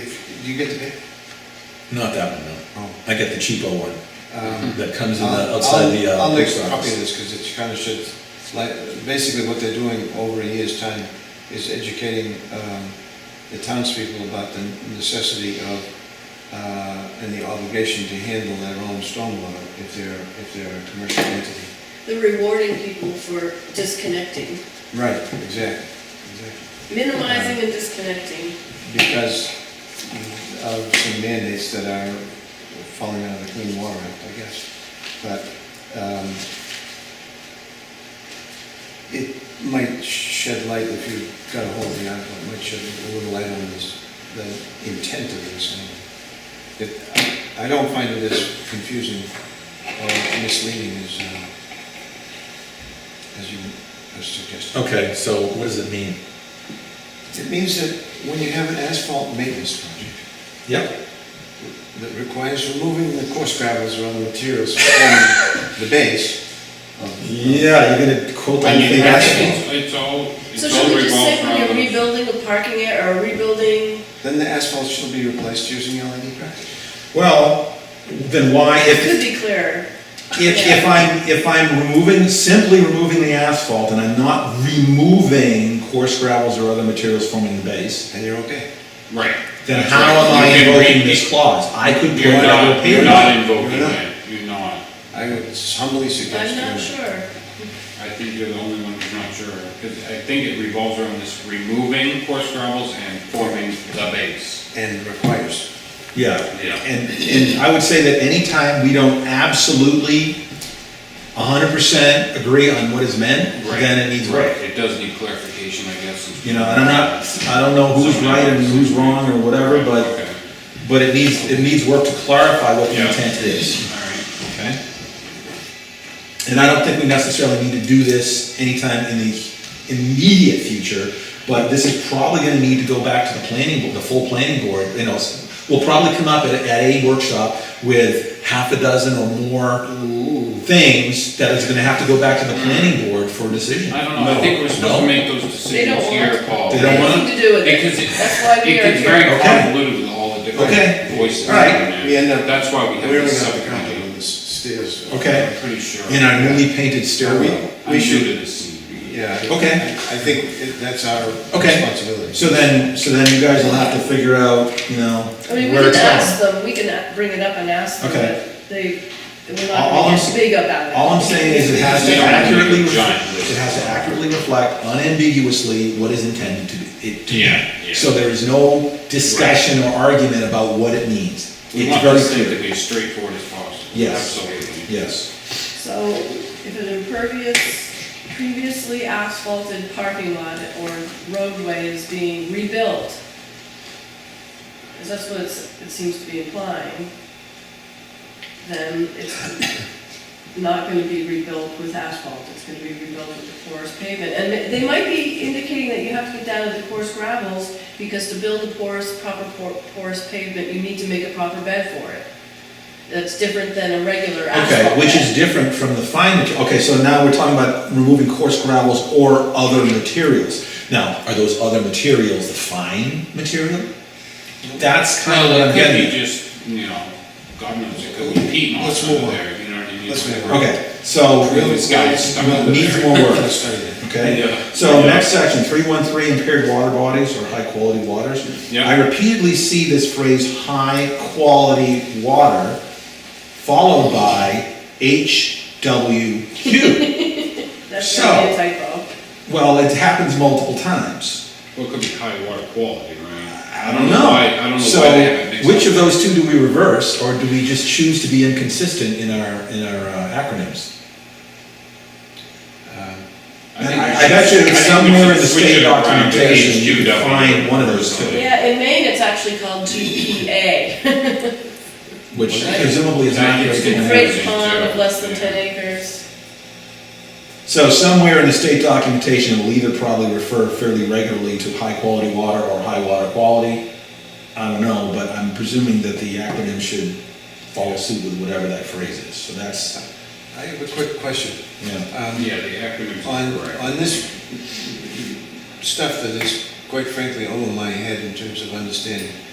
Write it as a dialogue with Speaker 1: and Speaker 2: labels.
Speaker 1: If, do you get to pick?
Speaker 2: Not that one, no. I get the cheapo one
Speaker 1: Um,
Speaker 2: Oh. that comes in
Speaker 1: I'll-
Speaker 2: the, outside the,
Speaker 1: I'll-
Speaker 2: uh,
Speaker 1: I'll make
Speaker 2: post
Speaker 1: a copy of
Speaker 2: office.
Speaker 1: this, because it kind of should, like, basically what they're doing over a year's time is educating um, the townspeople about the necessity of, uh, and the obligation to handle their own stormwater if they're, if they're a commercial entity.
Speaker 3: the rewarding people for disconnecting,
Speaker 1: Right, exactly, exactly.
Speaker 3: minimizing and disconnecting.
Speaker 1: Because of some mandates that are falling out of the Clean Water Act, I guess. But um, it might shed light, if you got a hold of the article, it might shed a little light on this, the intent of this. It- I I don't find it as confusing or misleading as, um, as you as suggested.
Speaker 2: Okay, so what does it mean?
Speaker 1: It means that when you have an asphalt maintenance project,
Speaker 2: Yep.
Speaker 1: that requires removing the coarse gravels or other materials from the base. of-
Speaker 2: Yeah, you're gonna quote
Speaker 1: When
Speaker 2: that
Speaker 1: you
Speaker 2: thing
Speaker 1: have
Speaker 2: asphalt.
Speaker 1: it.
Speaker 4: It's it's all,
Speaker 3: So
Speaker 4: it's all
Speaker 3: should we just say
Speaker 4: revolved
Speaker 3: when you're
Speaker 4: around.
Speaker 3: rebuilding a parking area or rebuilding,
Speaker 1: Then the asphalt shall be replaced using E LED brackets.
Speaker 2: Well, then why,
Speaker 3: it
Speaker 2: if,
Speaker 3: could be clearer.
Speaker 2: if, if I'm, if I'm removing, simply removing the asphalt and I'm not removing coarse gravels or other materials forming the base,
Speaker 1: And you're okay.
Speaker 4: Right.
Speaker 2: then
Speaker 4: That's
Speaker 2: how
Speaker 4: right.
Speaker 2: am I
Speaker 4: You can
Speaker 2: invoking
Speaker 4: read-
Speaker 2: this clause? I could put
Speaker 4: You're
Speaker 2: out a
Speaker 4: not, you're
Speaker 2: payment.
Speaker 4: not
Speaker 1: You're
Speaker 4: invoking
Speaker 1: not.
Speaker 4: that, you're not.
Speaker 1: I would humbly suggest.
Speaker 3: I'm not
Speaker 1: you-
Speaker 3: sure.
Speaker 4: I think you're the only one who's not sure, 'cause I think it revolves around this removing coarse gravels and forming the base.
Speaker 1: And requires.
Speaker 2: Yeah,
Speaker 4: Yeah.
Speaker 2: and, and I would say that anytime we don't absolutely hundred percent agree on what is meant,
Speaker 4: Right.
Speaker 2: then it needs
Speaker 4: Right,
Speaker 2: work.
Speaker 4: it does need clarification, I guess. since-
Speaker 2: You know, and I'm not, I don't know who's right and who's wrong or whatever, but,
Speaker 4: Okay,
Speaker 2: but it needs, it needs work to clarify what the
Speaker 4: Yeah.
Speaker 2: intent is,
Speaker 4: all right.
Speaker 2: okay? And I don't think we necessarily need to do this anytime in the immediate future, but this is probably gonna need to go back to the planning, board, the full planning board, you know, s- we'll probably come up at, at a workshop with half a dozen or more things that is gonna have to go back to the planning board for a decision.
Speaker 4: I don't know, I think we're supposed to
Speaker 2: No?
Speaker 4: make those
Speaker 3: They don't
Speaker 4: decisions here, Paul.
Speaker 3: want,
Speaker 2: They
Speaker 3: they
Speaker 2: don't
Speaker 3: have
Speaker 2: want-
Speaker 3: nothing to do with
Speaker 4: Because
Speaker 3: it.
Speaker 4: it,
Speaker 3: That's why we
Speaker 4: it
Speaker 3: are
Speaker 4: gets
Speaker 3: here.
Speaker 4: very
Speaker 2: Okay.
Speaker 4: convoluted with all the
Speaker 2: Okay.
Speaker 4: different voices.
Speaker 2: All right.
Speaker 4: in there.
Speaker 1: We end up-
Speaker 4: That's why we
Speaker 1: We
Speaker 4: have the
Speaker 1: really have to come
Speaker 4: subcommittee.
Speaker 1: on the stairs.
Speaker 2: Okay.
Speaker 4: I'm pretty sure.
Speaker 2: In our newly painted stairwell.
Speaker 1: We
Speaker 4: I'm new
Speaker 1: should,
Speaker 4: to this scene.
Speaker 1: yeah. I-
Speaker 2: Okay.
Speaker 1: I think it- that's our
Speaker 2: Okay,
Speaker 1: responsibility.
Speaker 2: so then, so then you guys will have to figure out, you know,
Speaker 3: I mean, we
Speaker 2: where
Speaker 3: can
Speaker 2: it's
Speaker 3: ask
Speaker 2: going.
Speaker 3: them, we can uh, bring it up and ask them,
Speaker 2: Okay.
Speaker 3: but they, we're
Speaker 2: All- all
Speaker 3: not
Speaker 2: I'm
Speaker 3: gonna
Speaker 2: s-
Speaker 3: get big about it.
Speaker 2: All I'm saying is it has to
Speaker 4: They don't have to make a
Speaker 2: accurately,
Speaker 4: giant
Speaker 2: ref-
Speaker 4: list.
Speaker 2: it has to accurately reflect unambiguously what is intended to be. it to be.
Speaker 4: Yeah, yeah.
Speaker 2: So there is no discussion or argument about what it means.
Speaker 4: We
Speaker 2: It's
Speaker 4: want
Speaker 2: very
Speaker 4: this thing to
Speaker 2: clear.
Speaker 4: be as straightforward as possible.
Speaker 2: Yes.
Speaker 4: Absolutely.
Speaker 2: Yes,
Speaker 3: So if an impervious, previously asphalted parking lot or roadway is being rebuilt, because that's what it's- it seems to be implying, then it's not going to be rebuilt with asphalt, it's going to be rebuilt with the porous pavement. And they- they might be indicating that you have to get down to the coarse gravels, because to build a porous, proper por- porous pavement, you need to make a proper bed for it. That's different than a regular asphalt
Speaker 2: okay, which
Speaker 3: bed.
Speaker 2: is different from the fine material. Okay, so now we're talking about removing coarse gravels or other materials. Now, are those other materials the fine material? That's kind of what I'm
Speaker 4: Well, it could
Speaker 2: getting at.
Speaker 4: be just, you know, God knows, it could be peat moss
Speaker 1: Let's move
Speaker 4: under
Speaker 1: on.
Speaker 4: there, you know what I mean?
Speaker 1: Let's move on.
Speaker 2: Okay, so,
Speaker 1: Really,
Speaker 4: This guy's stuck
Speaker 1: we-
Speaker 4: under
Speaker 1: we-
Speaker 2: Needs
Speaker 4: there.
Speaker 2: more work.
Speaker 1: Let's study that.
Speaker 4: Yeah.
Speaker 2: okay, so
Speaker 4: Yeah.
Speaker 2: next section, three one three impaired water bodies or high quality waters.
Speaker 4: Yeah.
Speaker 2: I repeatedly see this phrase, high quality water, followed by HWQ.
Speaker 3: That's
Speaker 2: So-
Speaker 3: gonna be a typo.
Speaker 2: Well, it happens multiple times.
Speaker 4: Well, it could be high water quality, Mm-hmm. right?
Speaker 2: I don't know.
Speaker 4: why- I don't know why they have it mixed
Speaker 2: So which
Speaker 4: up.
Speaker 2: of those two do we reverse, or do we just choose to be inconsistent in our, in our uh, acronyms?
Speaker 1: Um,
Speaker 4: I think we
Speaker 2: I bet
Speaker 4: should- I
Speaker 2: you
Speaker 4: think we
Speaker 2: somewhere in
Speaker 4: should
Speaker 2: the
Speaker 4: switch
Speaker 2: state
Speaker 4: it around to
Speaker 2: documentation, you can
Speaker 4: HQW.
Speaker 2: find one of those two.
Speaker 3: Yeah, in Maine, it's actually called GPA,
Speaker 2: Which presumably is not
Speaker 4: That gets
Speaker 2: here.
Speaker 3: great pond of less than ten acres.
Speaker 2: So somewhere in the state documentation, it will either probably refer fairly regularly to high-quality water or high water quality. I don't know, but I'm presuming that the acronym should follow suit with whatever that phrase is, so that's,
Speaker 1: I have a quick question.
Speaker 2: you know.
Speaker 1: Um,
Speaker 4: Yeah, the acronyms
Speaker 1: On,
Speaker 4: are correct.
Speaker 1: on this stuff that is quite frankly over my head in terms of understanding,